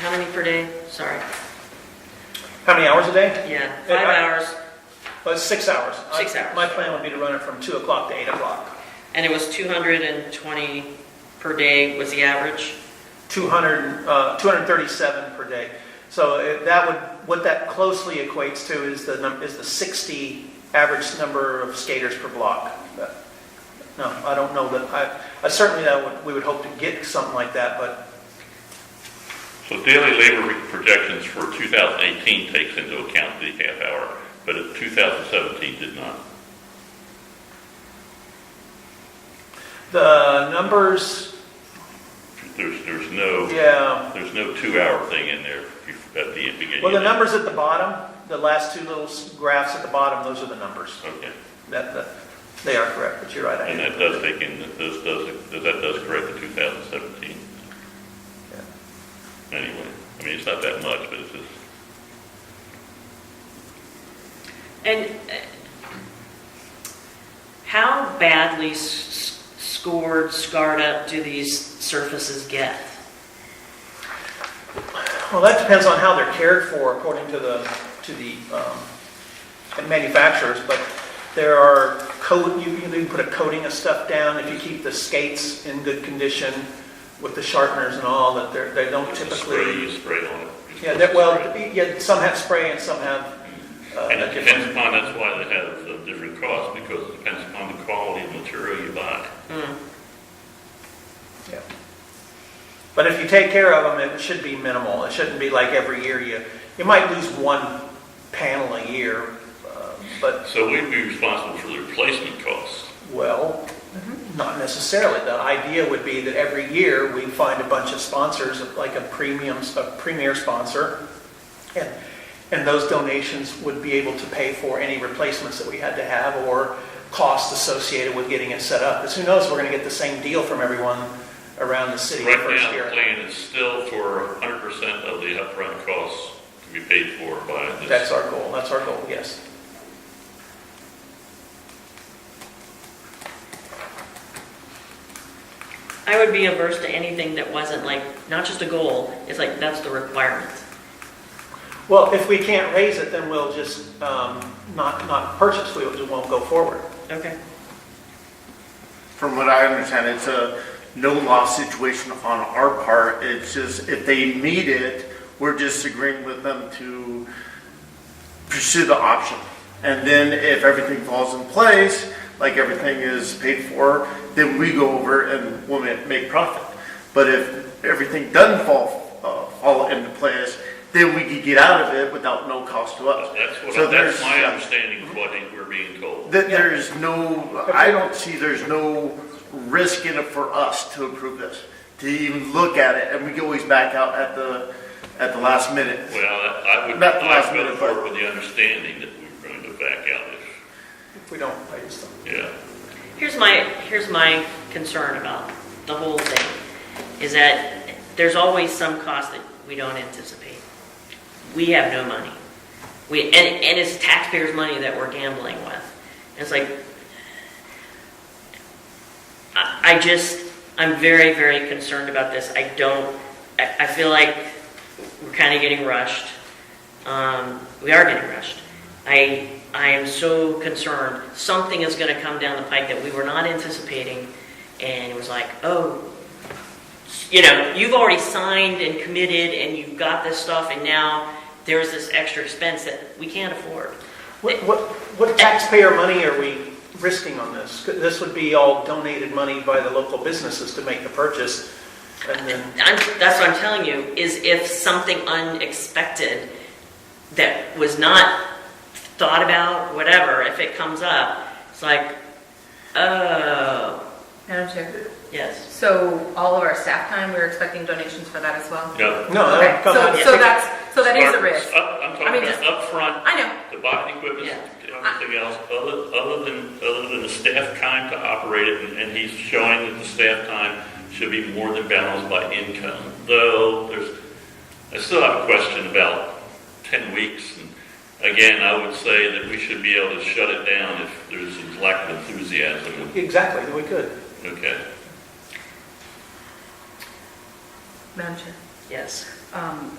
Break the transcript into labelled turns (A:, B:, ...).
A: How many per day? Sorry.
B: How many hours a day?
A: Yeah,
B: Yeah,
A: five
B: I-
A: hours,
B: Well, it's six hours.
A: Six
B: I-
A: hours.
B: My plan would be to run it from 2 o'clock to 8 o'clock.
A: and it was 220 per day was the average?
B: 200, uh, 237 per day. So it- that would, what that closely equates to is the, num- is the 60 average number of skaters per block. But, No, I don't know that, I, I certainly that would, we would hope to get something like that, but
C: So daily labor projections for 2018 takes into account the half hour, but it- 2017 did not.
B: the numbers,
C: There's, there's no,
B: yeah.
C: there's no two-hour thing in there bef- at the beginning.
B: Well, the numbers at the bottom, the last two little s- graphs at the bottom, those are the numbers.
C: Okay,
B: That, that, they are correct, but you're right. I
C: and
B: didn't-
C: that does take in, that does, does, that does correct the 2017. Anyway, I mean, it's not that much, but it's just,
A: And uh, how badly s- s- scored, scarred up do these surfaces get?
B: Well, that depends on how they're cared for according to the, to the um, manufacturers, but there are coat, you you can put a coating of stuff down if you keep the skates in good condition with the sharpeners and all, that they're, they don't
C: it's a spray,
B: typically.
C: you spray on it. It's
B: Yeah, that, well,
C: spray.
B: yeah, some have spray and some have uh,
C: And it
B: a
C: depends
B: different.
C: upon, that's why they have uh, different costs, because it depends upon the quality of material you buy.
A: Hmm.
B: Yeah. But if you take care of them, it should be minimal. It shouldn't be like every year you, you might lose one panel a year, uh, but
C: So we'd be responsible for the replacement costs.
B: Well, not necessarily. The idea would be that every year we find a bunch of sponsors, like a premium, a premier sponsor, and, and those donations would be able to pay for any replacements that we had to have or costs associated with getting it set up. Because who knows, we're going to get the same deal from everyone around the city the
C: Right
B: first
C: now, the
B: year.
C: plan is still for 100% of the upfront costs to be paid for by
B: That's
C: this.
B: our goal, that's our goal, yes.
A: I would be averse to anything that wasn't like, not just a goal, it's like, that's the requirement.
B: Well, if we can't raise it, then we'll just um, not, not purchase, we just won't go forward.
A: Okay.
D: From what I understand, it's a no-loss situation on our part. It's just if they meet it, we're just agreeing with them to pursue the option. And then if everything falls in place, like everything is paid for, then we go over and we'll ma- make profit. But if everything doesn't fall, uh, fall into place, then we could get out of it without no cost to us.
C: That's
D: So
C: what,
D: there's-
C: that's my understanding of what we're being told.
D: that there's no, I don't see there's no risk in it for us to approve this, to even look at it, and we can always back out at the, at the last minute.
C: Well, I would,
D: Not the last
C: I would
D: minute,
C: report
D: but-
C: with the understanding that we're going to back out if,
B: If we don't raise them.
C: yeah.
A: Here's my, here's my concern about the whole thing, is that there's always some cost that we don't anticipate. We have no money. We, and, and it's taxpayers' money that we're gambling with. It's like, I, I just, I'm very, very concerned about this. I don't, I, I feel like we're kind of getting rushed. Um, we are getting rushed. I, I am so concerned, something is gonna come down the pike that we were not anticipating, and it was like, oh, you know, you've already signed and committed, and you've got this stuff, and now there's this extra expense that we can't afford.
B: What, what, what taxpayer money are we risking on this? This would be all donated money by the local businesses to make the purchase, and then,
A: I'm, that's what I'm telling you, is if something unexpected that was not thought about, whatever, if it comes up, it's like, oh,
E: Madam Chair,
A: yes.
E: so all of our staff time, we're expecting donations for that as well?
C: No.
B: no,
E: Okay,
B: that would come out.
E: so, so that's, so that is a
C: Mark,
E: risk.
C: up- I'm
E: I mean,
C: talking
E: just-
C: about upfront
E: I know,
C: The buying equipment,
A: Yeah.
C: everything else, other, other than, other than the staff time to operate it, and- and he's showing that the staff time should be more than balanced by income, though there's, I still have a question about ten weeks, and again, I would say that we should be able to shut it down if there's a lack of enthusiasm,
B: Exactly, we could.
C: okay?
E: Madam Chair.
A: Yes.
E: Um,